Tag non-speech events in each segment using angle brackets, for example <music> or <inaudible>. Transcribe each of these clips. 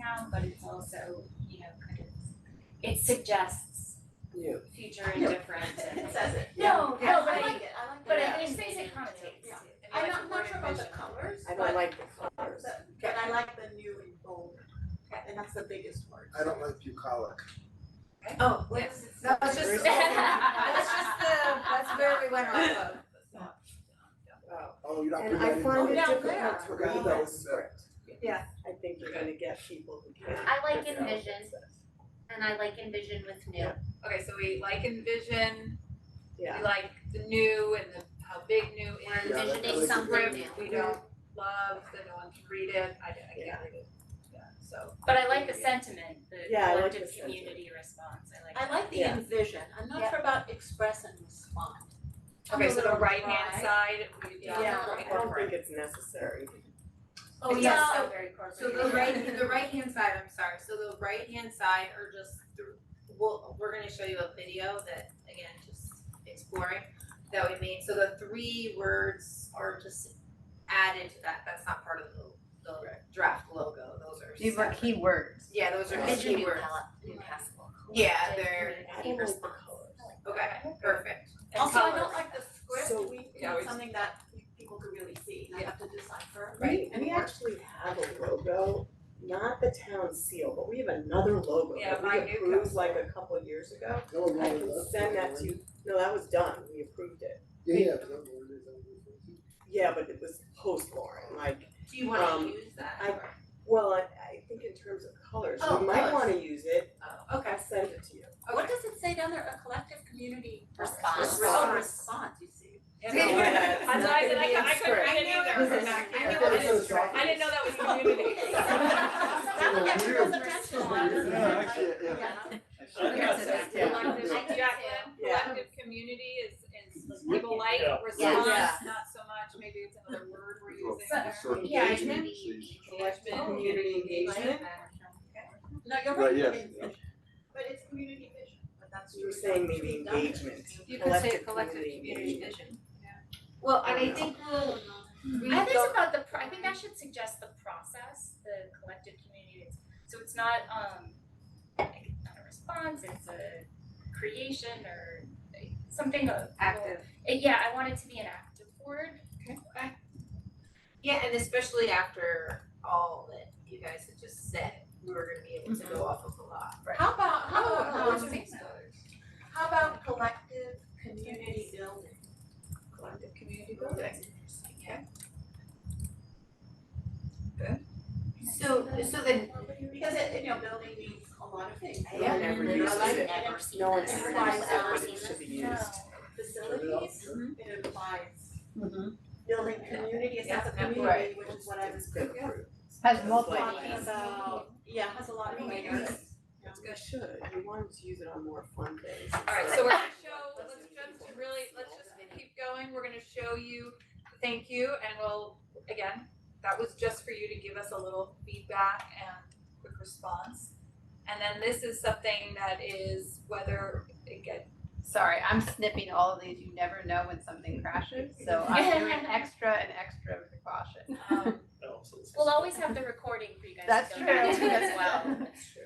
town, but it's also, you know, kind of, it suggests Yeah. future and different <laughs> and. It says it. No, Yeah, no, but I I, like it, I like it. but Yeah. I think things it connotates. Yeah. I I'm mean, like not, not sure about the vision. colors, I but- don't like the colors. but- but I like the new and bold, and that's the biggest word. I don't like bucolic. Oh, what That was <laughs> just, <laughs> Uh, that's just the, that's where we went off of. Oh, you're not And putting I that in. find Oh, it yeah, difficult to there. read Yeah. that script. Yeah. I think you're gonna get people who can't. I like figure out envision what it says. and I like envision with new. Okay, so we like envision, we Yeah, like the new and the, how big new We're is. Yeah, that- that was envisioning a something good- new. We don't love that no one can read it, I, I can't Yeah. read it, yeah, so. But I like the sentiment, the Yeah, I like the collective sentiment. community response, I like I that. like the Yeah. envision, I'm not Yeah. sure about express and respond. I'm Okay, a so the little right hand dry. side, we Yeah. don't I don't think it's necessary. Oh, It's yes, also so very corporate. So <laughs> the right, the right hand side, I'm sorry, so the right hand side are just, th- we'll, we're gonna show you a video that, again, just exploring that we made, so the three words are just added to that, that's not part of the, the draft logo, those are These were separate. keywords. Yeah, those are just Envision new keywords. pal- new castle. Yeah, they're, I Key don't like the response. colors. okay, perfect. And Also, I colors. don't like the So- script, we Yeah, need we- something that people could really see, and I have to decipher. We, we actually have a logo, not the town seal, but we have another logo Yeah, that we my new approved council. like a couple of years ago. That was one I of can those. send that to you, no, that was done, we approved it. Yeah, yeah, that was one of those. Yeah, but it was post Lauren, like, Do you wanna Um, use that? I- well, I, I think in terms of colors, Oh, you might colors. wanna use it, Oh, okay, I'll send it to you. What does it say down there, a collective community? Response. Oh, response, you see. And the- Yeah, it's <laughs> I'm not sorry, gonna I be in cou- I couldn't script. read I it either, knew that was- back I here. knew that was It's so I didn't know that was community. <laughs> That one gets people's attention a lot, doesn't it? Yeah, actually, yeah. Okay, so Yeah. collective, I do too. Jacqueline, Yeah. collective community is is It's people like, yeah. response, Yeah. not so much, maybe it's another word we're Well, using there. sort of Yeah, I engagement, maybe- so you- Collective Oh. community engagement, No, you're Right, right, yeah. I mean, but it's community vision, but that's. you were saying maybe engagement, You could say collective collective community community engagement. vision. Well, and I think we'll I read think it's the, about the, pro- I think I should suggest the process, the collective community, it's, so it's not, um, like, it's not a response, it's a creation or uh, something of. active. Uh, Yeah, I want it to be an active word. Yeah, and especially after all that you guys had just said, we were gonna be able to go off of a lot. How about, how about, Um, um, how about collective community building? Collective community building. So, so then, Because it, you know, building means a lot of things. No one ever And I uses like it. that it No one's Everybody's ever said ever that seen it should be used. Facilities, it implies Mhm. building community, a sense of Yeah, community, right. which is what I was It's been approved. Has It's multiple like- talking about. Yeah, has a lot of Right. layers. It's good. Should, you wanted to use it on more fun days. Alright, so we're gonna show, let's jump to really, let's just keep going, we're gonna show you, thank you, and we'll, again, that was just for you to give us a little feedback and quick response. And then this is something that is whether, again, Sorry, I'm snipping all of these. You never know when something crashes, so I'm doing extra and extra <laughs> precaution. um, We'll always have the recording for you guys That's to go back true. to as well. <laughs> That's true.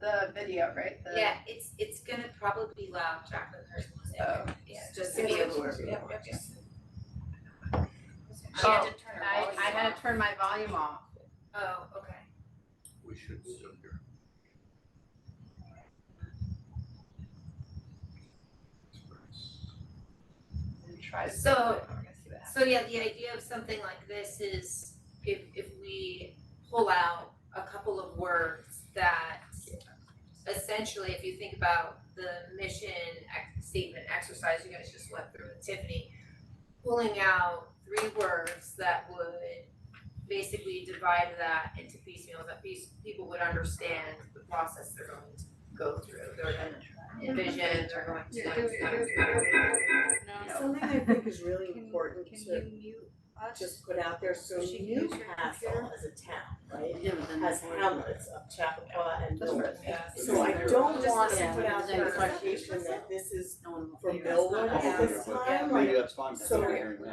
The video, right? The- yeah, it's, it's gonna probably be loud, Jacqueline, there's one Oh. just to be aware. She had to turn her Oh, I, volume I had off. to turn my volume off. Oh, okay. We should still hear. and tried. So- We're gonna see what happens. So yeah, the idea of something like this is if if we pull out a couple of words that essentially, if you think about the mission ex- statement exercise you guys just went through with Tiffany, pulling out three words that would basically divide that into piecemeal that these people would understand the process they're going to go through, they're going to envision, they're going to Something I think is really important can to you mute us? just put out there, so She can use her Newcastle computer. as a town, right? then Has hamlets of Chappaqua and That's Millwood. right. So I don't Just want to the put out same. there the implication that this is No one will for hear us. Millwood Yeah. at this Yeah. time, like, that's fine, so- hearing that.